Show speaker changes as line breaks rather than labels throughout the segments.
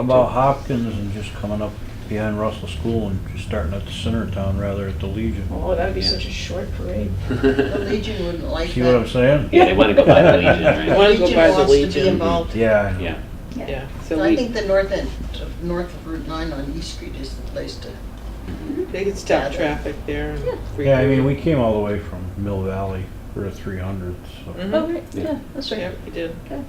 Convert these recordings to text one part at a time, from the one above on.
About Hopkins and just coming up behind Russell School and just starting at the center of town rather at the Legion.
Oh, that'd be such a short parade.
The Legion wouldn't like
See what I'm
that.
saying?
Yeah, they wanna go by the Legion,
They
right?
wanna go by the
wants to be
Legion.
involved.
Yeah, I know.
Yeah,
Yeah,
So
so
I
we,
think the north end, of- north of Route 9 on East Street is the place to,
Mm-hmm.
they could
Yeah,
stop
they-
traffic there. and
Yeah.
yeah, I mean, we came all the way from Mill Valley for the three hundred, so.
Mhm.
Oh, right,
Yeah.
yeah, that's
Yeah,
right.
we did.
Okay.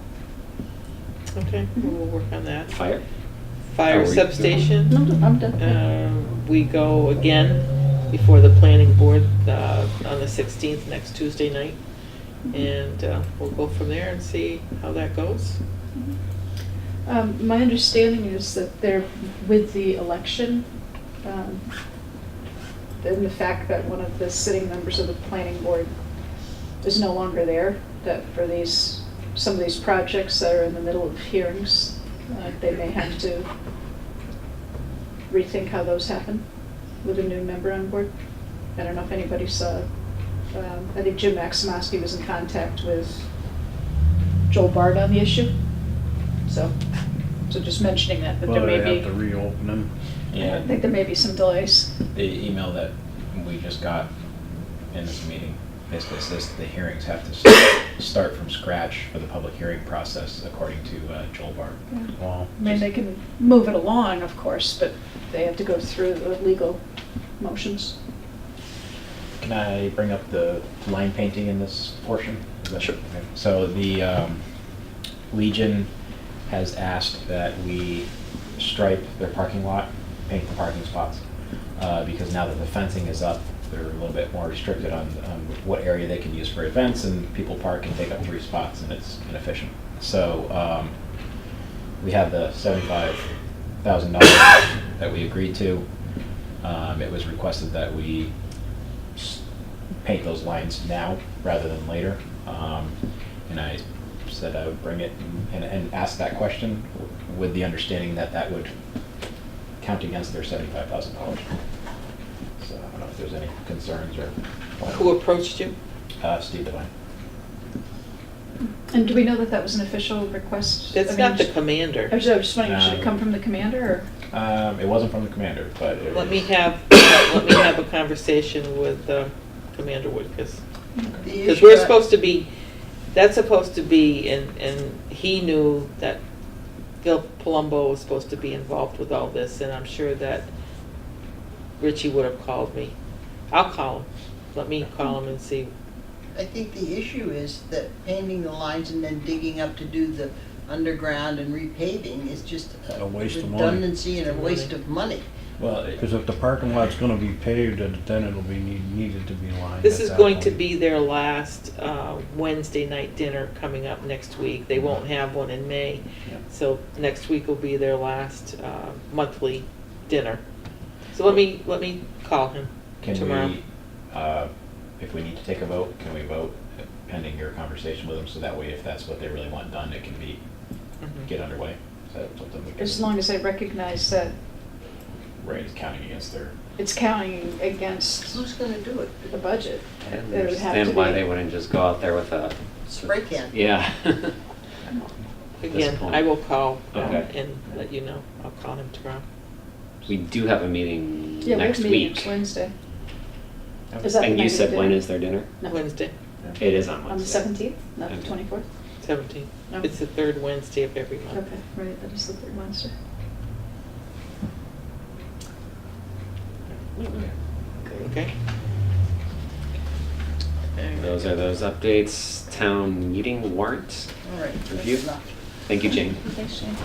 Okay, well,
Mm-hmm.
we'll work on that.
fire. Are
Fire
we doing-
substation,
No, I'm done.
um, we go again before the planning board uh, on the 16th, next Tuesday night.
Mm-hmm.
Mm-hmm.
And uh, we'll go from there and see how that goes.
Um, my understanding is that they're, with the election, um, and the fact that one of the sitting members of the planning board is no longer there, that for these, some of these projects that are in the middle of hearings, uh, they may have to rethink how those happen with a new member on board. I don't know if anybody saw, um, I think Jim Maximowski was in contact with Joel Bard on the issue. So, so just mentioning that, that there
But I
may
have to
be,
reopen them.
I
Yeah,
think there may be some delays.
the email that we just got in this meeting basically says the hearings have to s- start from scratch for the public hearing process, according to uh, Joel Bart.
Wow.
I mean, they can move it along, of course, but they have to go through the legal motions.
Can I bring up the line painting in this portion? Is that-
Sure.
okay. So the um, Legion has asked that we stripe their parking lot, paint the parking spots, uh, because now that the fencing is up, they're a little bit more restricted on on what area they can use for events, and people park and take up three spots, and it's inefficient. So um, we have the seventy-five thousand dollars that we agreed to. Um, It was requested that we s- paint those lines now rather than later. Um, And I said I would bring it and, and ask that question with the understanding that that would count against their seventy-five thousand dollars. So I don't know if there's any concerns or.
Who approached you?
Uh, Steve Devine.
And do we know that that was an official request? I
That's
mean,
not the
just-
commander.
I was I was just wondering, should it
Um,
Uh,
come from the commander,
Um, it wasn't from the commander, but it was.
Let me have, let me have a conversation with uh, Commander Woodcus.
the
Because
issue
we're
I-
supposed to be, that's supposed to be, and, and he knew that Phil Palumbo was supposed to be involved with all this, and I'm sure that Richie would have called me. I'll call him. Let me call him and see.
I think the issue is that painting the lines and then digging up to do the underground and repaving is just
A waste of money.
redundancy and a waste of money.
Well, it-
Cause if the parking lot's gonna be paved, then- then it'll be need- needed to be lined.
This
at
is
that
going to
point.
be their last uh, Wednesday night dinner coming up next week. They won't have one in May.
Mm-hmm. Yeah.
So next week will be their last uh, monthly dinner. So let me, let me call him
Can
tomorrow.
we, uh, if we need to take a vote, can we vote pending your conversation with them? So that way, if that's what they really want done, it can be,
Mhm.
get underway. Is that something we can?
Mm-hmm. as long as they recognize that
Right, it's counting against their,
it's counting against
Who's gonna do it?
the budget?
I don't
It would have to
understand why
be-
they wouldn't just go out there with a.
Spray can.
Yeah. this
Again,
point.
I will call um,
Okay.
and let you know. I'll call him tomorrow.
We do have a meeting
Yeah, we have
next
a meeting
week.
next Wednesday.
Okay.
Is that the
And
night
you
of
said when
dinner?
is their dinner?
No.
Wednesday,
It is on
On the
Wednesday.
seventeenth, not the
Okay.
twenty-fourth?
17.
No.
It's the third Wednesday of every month.
Okay, right, that is the third Wednesday.
Okay?
Those are those updates. Town meeting warrant.
All right, that's
Review.
enough.
Thank you, Jane.
Thanks, Jane.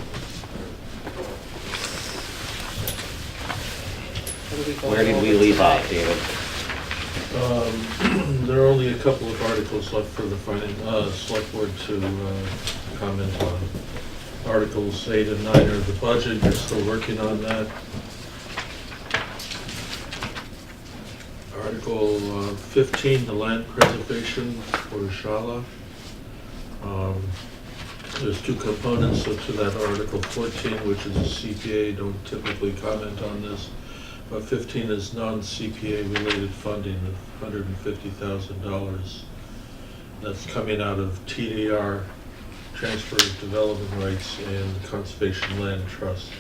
What are going
Where did we
over
leave off,
tonight?
David?
Um, There are only a couple of articles left for the finan- uh, select board to uh, comment on. Articles eight and nine are the budget, you're still working on that. Article uh, 15, the land preservation for Shala. Um, There's two components to that Article 14, which is a CPA, don't typically comment on this. But 15 is non-CPA related funding of $150,000. That's coming out of TDR transfer of development rights and conservation land trust.